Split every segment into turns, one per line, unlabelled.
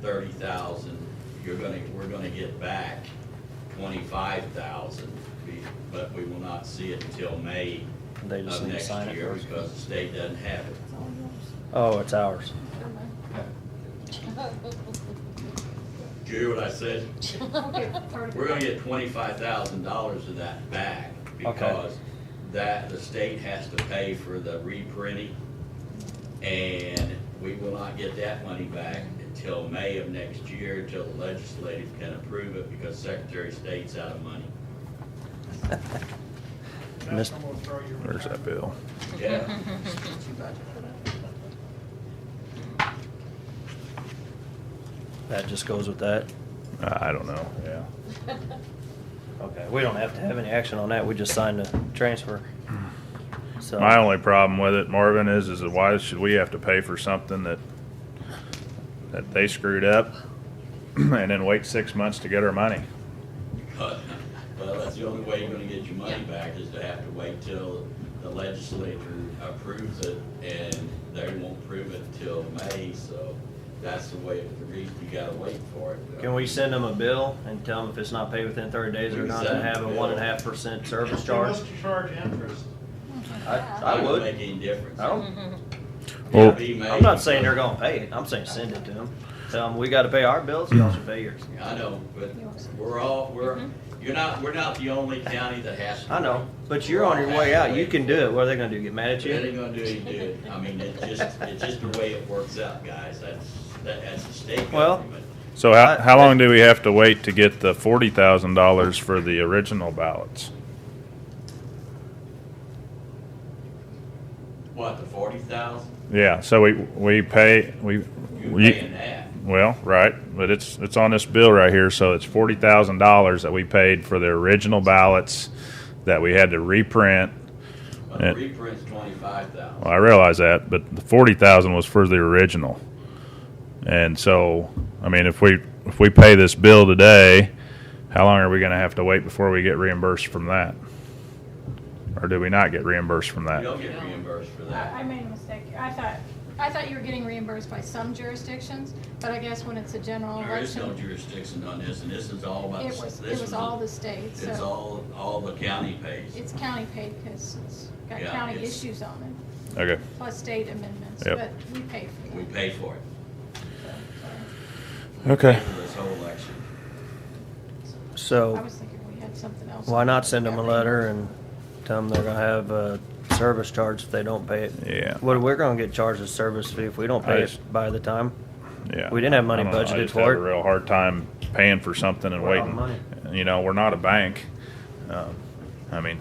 thirty thousand, you're gonna, we're gonna get back twenty-five thousand, but we will not see it until May
They just
of
need to
next
sign it
year
first.
because the state doesn't have it.
Oh, it's ours.
Do you hear what I said? We're gonna get twenty-five thousand dollars of that back because that, the state has to pay for the reprinting. And we will not get that money back until May of next year, until the legislative can approve it because Secretary of State's out of money.
Miss-
Where's that bill?
Yeah,
That just goes with that.
I I don't know, yeah.
Okay, we don't have to have any action on that. We just signed the transfer. So,
My only problem with it, Marvin, is, is why should we have to pay for something that, that they screwed up and then wait six months to get our money?
but, well, that's the only way you're gonna get your money back is to have to wait till the legislature approves it and they won't approve it till May, so that's the way, the reason you gotta wait for it.
can we send them a bill and tell them if it's not paid within thirty days, they're
We
not
send
to have
them
a
a
one and a
bill.
half percent service charge?
What's the charge interest?
I, I
Doesn't
would.
Make any difference.
I don't,
Well-
It'll be May.
I'm not saying they're gonna pay it. I'm saying send it to them. Tell them we gotta pay our bills, y'all should pay yours.
I know, but we're all, we're, you're not, we're not the only county that has to.
I know, but you're on your way out. You can do it. What are they gonna do? Get mad at
It ain't
you?
gonna do any good. I mean, it's just, it's just the way it works out, guys. That's, that, that's the state
Well-
government.
So how, how long do we have to wait to get the forty thousand dollars for the original ballots?
What, the forty thousand?
Yeah, so we, we pay, we.
You're
you-
paying that.
Well, right, but it's, it's on this bill right here, so it's forty thousand dollars that we paid for the original ballots that we had to reprint.
But the
It-
reprint's twenty-five thousand.
Well, I realize that, but the forty thousand was for the original. And so, I mean, if we, if we pay this bill today, how long are we gonna have to wait before we get reimbursed from that? Or do we not get reimbursed from
You
that?
don't get reimbursed for
I I
that.
made a mistake. I thought, I thought you were getting reimbursed by some jurisdictions, but I guess when it's a general
There is no
election,
jurisdiction on this, and this is all about.
it
the-
was,
this
it was
is
all
a-
the state,
It's
so
all, all the county pays.
it's county paid because it's got
Yeah,
county
it's-
issues on it,
Okay,
plus state amendments,
Yep.
but we pay for
We
it.
pay for it.
okay.
For this whole election.
I
So,
was thinking we had something else.
why not send them a letter and tell them they're gonna have a service charge if they don't pay it?
Yeah,
What, we're gonna get charged a service fee if we don't
I
pay it
just-
by the time?
yeah.
We didn't have money
I don't know, I
budgeted
just
for
have
it.
A real hard time paying for something and
We're out of
waiting. You know, we're not a bank. Um, I mean,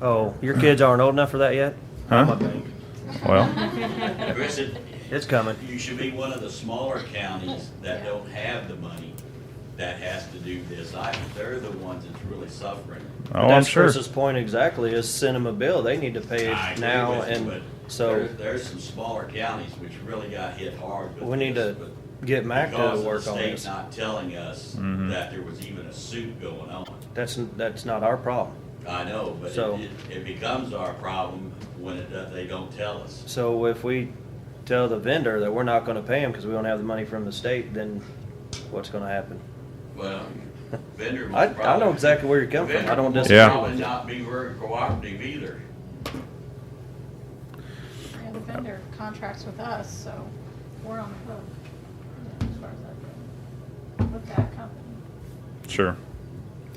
Oh, your kids aren't old enough for that yet?
huh? Well. oh,
Chris, it-
It's coming.
You should be one of the smaller counties that don't have the money that has to do this. I, they're the ones that's really suffering.
But
Oh, I'm
that's
sure.
Chris's point exactly, is send them a bill. They need to pay
I
it
agree
now
with you,
and
but
so
there- There's some smaller counties which really got hit hard with
we need
this,
to
but
get Mac
because
to
of the
work on
state
this.
Not telling us
Mhm.
that there was even a suit going on.
That's, that's not our problem.
I know, but
So-
it, it- it becomes our problem when it, does- they don't tell us.
So if we tell the vendor that we're not gonna pay them because we don't have the money from the state, then what's gonna happen?
Well, vendor
I,
most
I know
probably-
exactly where you're coming from. I
Vendor
don't
most
disagree
Probably
with you.
not be very cooperative either.
Yeah, the vendor contracts with us, so we're on the hook, you know, as far as that goes, with that company.
Sure.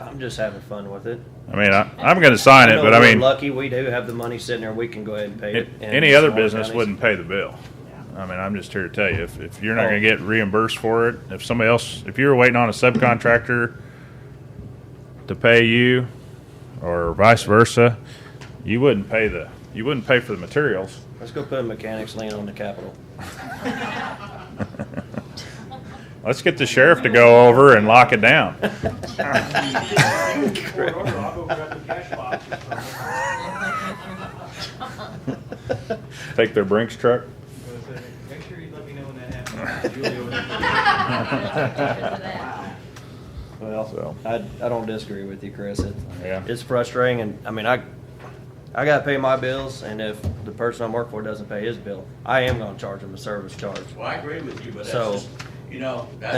I'm just having fun with it.
I mean, I, I'm going to sign it,
know
but I
we're
mean,
Lucky we do have the money sitting there. We can go ahead and pay it.
it-
And
any other
smaller
business
counties-
wouldn't pay the bill. I mean, I'm just here to tell you, if, if you're not
Oh.
going to get reimbursed for it, if somebody else, if you're waiting on a subcontractor to pay you, or vice versa, you wouldn't pay the you wouldn't pay for the materials.
Let's go put a mechanics lien on the Capitol.
Let's get the sheriff to go over and lock it down.
Court order, I'll go grab the cash box.
Take their Brinks truck.
uh, Make sure you let me know when that happens. Julie over there.
Well,
So.
I, I don't disagree with you, Chris. It's,
Yeah.
it's frustrating, and I mean, I I gotta pay my bills, and if the person I'm working for doesn't pay his bill, I am gonna charge him a service charge.
Well, I agree with you, but that's
So-
just, you you know, that's